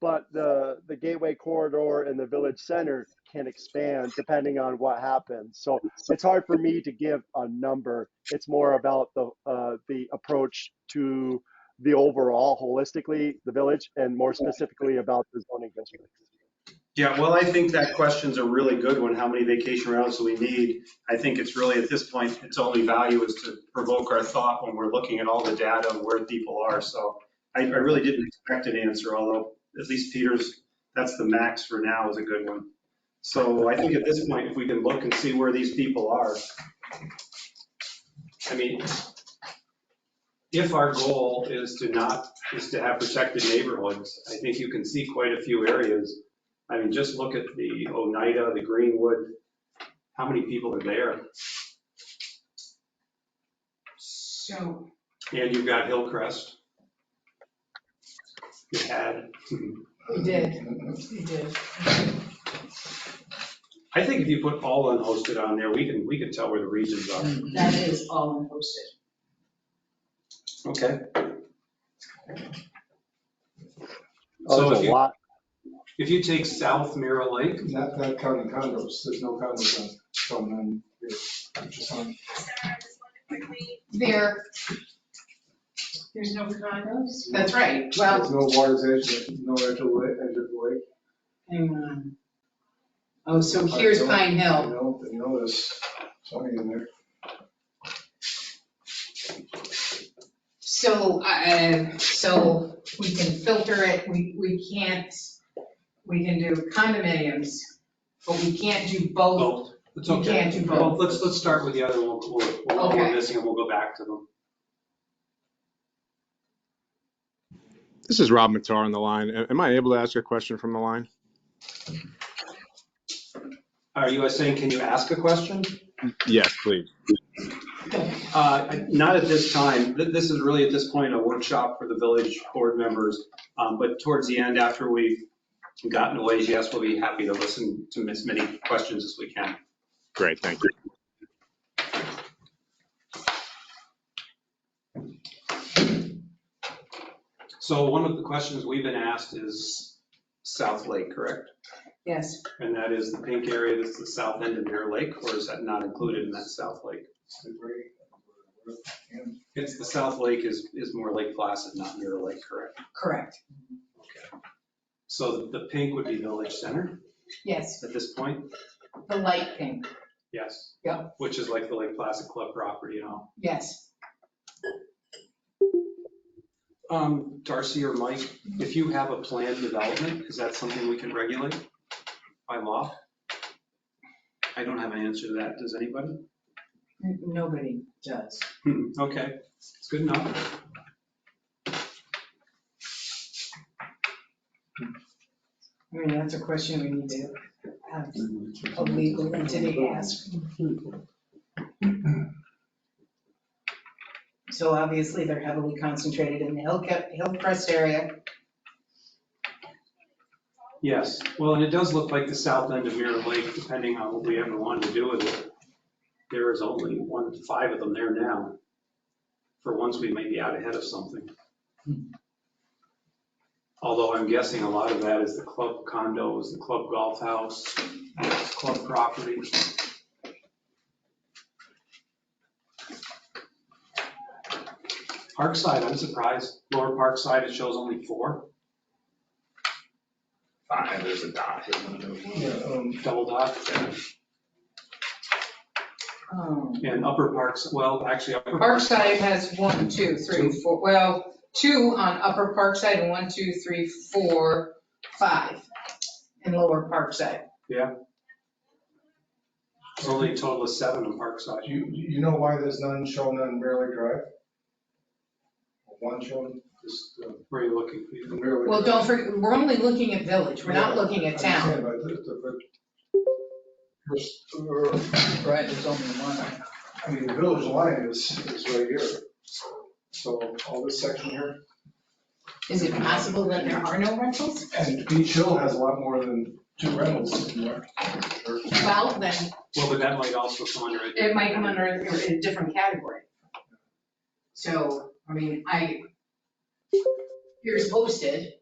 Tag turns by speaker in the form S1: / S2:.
S1: but the the gateway corridor and the village center can expand depending on what happens. So it's hard for me to give a number. It's more about the uh, the approach to the overall holistically the village and more specifically about the zoning district.
S2: Yeah, well, I think that question's a really good one, how many vacation rentals do we need? I think it's really, at this point, its only value is to provoke our thought when we're looking at all the data and where people are. So I, I really didn't expect an answer, although at least Peter's, that's the max for now is a good one. So I think at this point, if we can look and see where these people are. I mean, if our goal is to not, is to have protected neighborhoods, I think you can see quite a few areas I mean, just look at the Oneida, the Greenwood, how many people are there?
S3: So,
S2: And you've got Hillcrest. You had,
S3: we did, we did.
S2: I think if you put all unhosted on there, we can, we can tell where the regions are.
S3: That is all hosted.
S2: Okay.
S1: Oh,
S2: So if
S1: there's a
S2: you,
S1: lot.
S2: if you take South Mirror Lake,
S4: Not, not counting condos, there's no condos on, shown on here, which is on,
S3: There. There's no condos? That's right, well,
S4: there's no water's edge, no edge of lake, edge of lake.
S3: hang on. Oh, so here's Pine
S4: You
S3: Hill.
S4: know, you know, there's plenty in there.
S3: So, uh, so we can filter it, we, we can't, we can do condominiums, but we can't do both.
S2: oh, it's
S3: You
S2: okay.
S3: can't do both.
S2: Well, Let's, let's start with the other one, we'll, we'll, what
S3: Okay.
S2: we're missing, and we'll go back to them.
S5: This is Rob Matar on the line. A- Am I able to ask a question from the line?
S2: Are you saying, can you ask a question?
S5: Yes, please.
S2: Uh, Not at this time. Th- This is really, at this point, a workshop for the village board members. Um, But towards the end, after we've gotten away, yes, we'll be happy to listen to as many questions as we can.
S5: Great, thank you.
S2: So one of the questions we've been asked is South Lake, correct?
S3: Yes,
S2: And that is the pink area, that's the south end of Mirror Lake, or is that not included in that South Lake?
S4: It's a great- And
S2: It's, the South Lake is, is more Lake Placid, not Mirror Lake, correct?
S3: correct,
S2: So the pink would be Village Center
S3: yes,
S2: at this point?
S3: the light pink,
S2: Yes.
S3: Yeah.
S2: Which is like the Lake Placid Club property and all.
S3: yes.
S2: Um, Darcy or Mike, if you have a planned development, is that something we can regulate by law? I don't have an answer to that. Does anybody?
S3: N- Nobody does.
S2: Hmm, Okay, it's good enough.
S3: I mean, that's a question we need to have a legal entity ask. So obviously, they're heavily concentrated in the Hillcrest, Hillcrest area.
S2: Yes, well, and it does look like the south end of Mirror Lake, depending on what we ever want to do with it. There is only one, five of them there now. For once, we may be out ahead of something. Although I'm guessing a lot of that is the club condos, the club golf house, club property. Parkside, I'm surprised. Lower Parkside, it shows only four,
S6: Five, there's a dot.
S4: Yeah, um,
S2: double dot.
S3: Oh.
S2: And Upper Parks, well, actually, Upper Parks,
S3: Parkside has one, two, three, four, well, two on Upper Parkside and one, two, three, four, five in Lower Parkside.
S2: there's only a total of seven on Parkside.
S4: You, you know why there's none shown on Barely Drive? One shown, just uh,
S2: Where are you looking? Peter?
S4: Barely.
S3: Well,
S4: Drive.
S3: don't forget, we're only looking at village, we're not looking at
S4: I
S3: town.
S4: understand, but the- the- but- there's- there-
S3: Right, there's only one.
S4: uh, I mean, the village line is, is right here. So all this section here,
S3: Is it possible that there are no rentals?
S4: and Beach Hill has a lot more than two rentals in there. Or-
S3: Well, then
S2: Well, but that might also come under. a-
S3: it might come under a a different category. So, I mean, I, here's hosted,